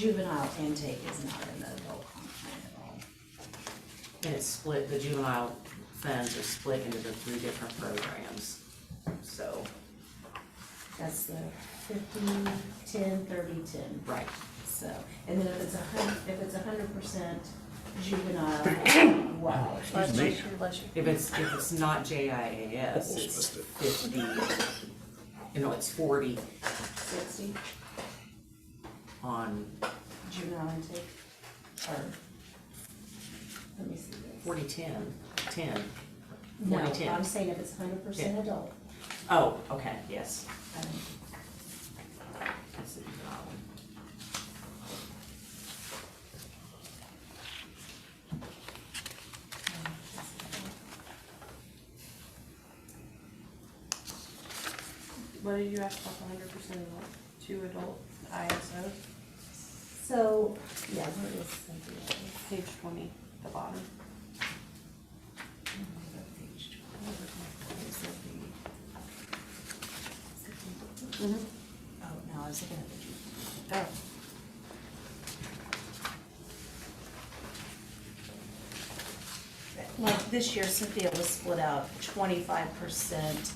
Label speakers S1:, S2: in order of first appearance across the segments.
S1: Juvenile intake is not in the adult content at all.
S2: And it's split, the juvenile funds are split into the three different programs, so,
S1: That's the fifty, ten, thirty, ten,
S2: right.
S1: so, and then if it's a hun, if it's a hundred percent juvenile, wow.
S3: Bless you, bless you.
S2: If it's, if it's not JIAS, it's
S4: missed it.
S2: fifty, you know, it's forty
S1: Sixty
S2: on,
S1: juvenile intake, or, let me see this.
S2: forty, ten, ten.
S1: No,
S2: 40, 10.
S1: I'm saying if it's hundred percent adult,
S2: Oh, okay, yes.
S1: I don't
S2: That's the juvenile one.
S3: What did you ask about the hundred percent of two adult ISO?
S1: So, yeah, where is Cynthia?
S3: Page twenty, the bottom.
S1: Page twelve, where's the? Oh, no, I was looking at the June.
S3: Oh,
S1: Like, this year Cynthia was split out twenty-five percent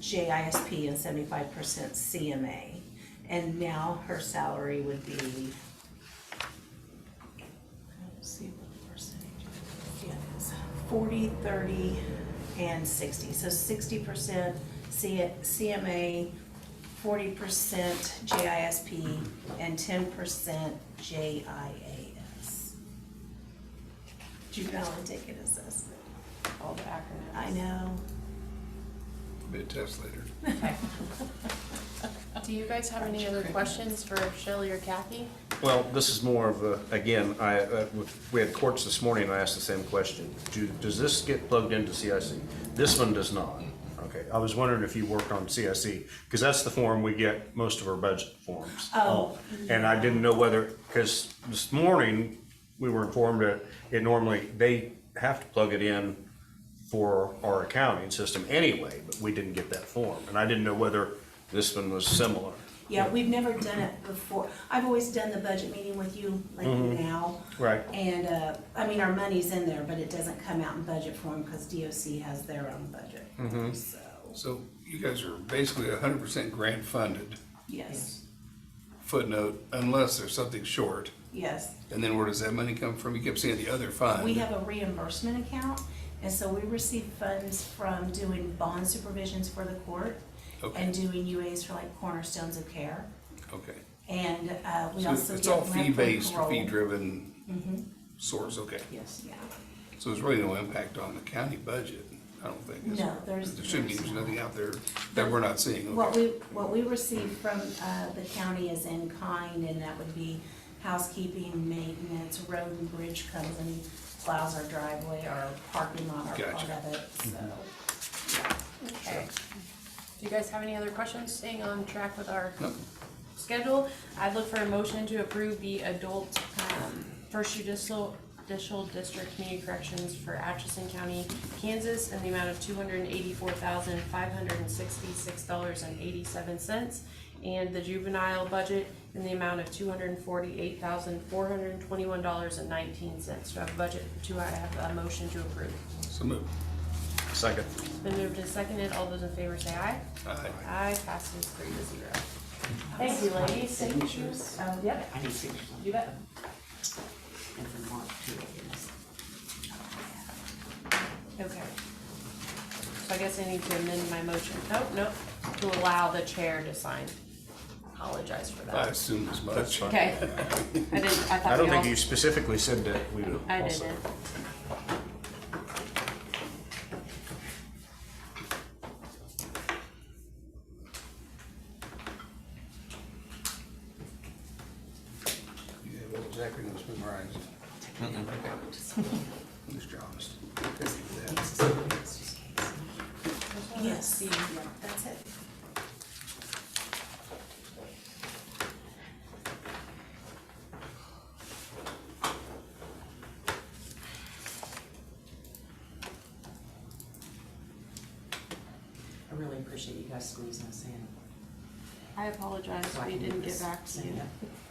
S1: JISP and seventy-five percent CMA. And now her salary would be. I don't see what the percentage is. Forty, thirty, and sixty. So sixty percent CMA, forty percent JISP, and ten percent JIAS. Juvenile intake and assessment.
S3: all the acronyms.
S1: I know.
S4: Be a test later.
S5: Do you guys have any other questions for Shelley or Kathy?
S6: Well, this is more of a, again, I, uh, we had courts this morning, and I asked the same question. Do, does this get plugged into CIC? This one does not. Okay, I was wondering if you worked on CIC, because that's the form we get most of our budget forms.
S1: Oh.
S6: And I didn't know whether, because this morning, we were informed that it normally, they have to plug it in for our accounting system anyway, but we didn't get that form. And I didn't know whether this one was similar.
S1: Yeah, we've never done it before. I've always done the budget meeting with you, like now.
S6: Right.
S1: And, uh, I mean, our money's in there, but it doesn't come out in budget form because DOC has their own budget. So,
S4: So you guys are basically hundred percent grant funded,
S1: yes,
S4: footnote, unless there's something short.
S1: yes.
S4: And then where does that money come from? You kept saying the other fund.
S1: We have a reimbursement account, and so we receive funds from doing bond supervisions for the court
S4: Okay,
S1: and doing UAs for like cornerstones of care.
S4: okay.
S1: And, uh, we
S4: So
S1: also
S4: it's all
S1: get rent
S4: fee-based,
S1: control.
S4: fee-driven source, okay.
S2: Yes.
S1: Yeah,
S4: So there's really no impact on the county budget, I don't think. is
S1: No,
S4: there?
S1: there's-
S4: There shouldn't be,
S1: there's
S4: there's
S1: not.
S4: nothing out there that we're not seeing,
S1: What
S4: okay.
S1: we, what we receive from, uh, the county is in kind, and that would be housekeeping, maintenance, road and bridge comes and plows our driveway, our parking lot, our part
S4: Gotcha. Mm-hmm.
S1: of it, so.
S5: Okay. Do you guys have any other questions, staying on track with our
S4: No.
S5: schedule? I'd look for a motion to approve the adult, um, first judicial, judicial district community corrections for Atchison County, Kansas, in the amount of two hundred and eighty-four thousand, five hundred and sixty-six dollars and eighty-seven cents, and the juvenile budget in the amount of two hundred and forty-eight thousand, four hundred and twenty-one dollars and nineteen cents. Do I have a budget, do I have a motion to approve?
S4: So move.
S6: Second.
S5: Been moved and seconded, all those in favor say aye.
S4: Aye.
S5: Aye, passes three to zero. Thank you, ladies. Signatures.
S1: Oh,
S5: Yep,
S2: I need signatures.
S5: you bet.
S2: And for Mark too, I guess.
S5: Okay. So I guess I need to amend my motion, nope, nope, to allow the chair to sign. Apologize for
S4: I
S5: that.
S4: assume as much.
S6: That's fine.
S5: Okay. I didn't, I
S6: I
S5: thought
S6: don't
S5: we
S6: think you
S5: all.
S6: specifically said that we would.
S5: I
S6: also-
S5: didn't.
S4: You have all those acronyms memorized. Mr. Honest.
S1: Yes, that's it.
S2: I really appreciate you guys squeezing us in.
S3: I apologize,
S2: so I
S3: we
S2: can
S3: didn't
S2: do
S3: get
S2: this.
S3: back to you.
S2: Yeah.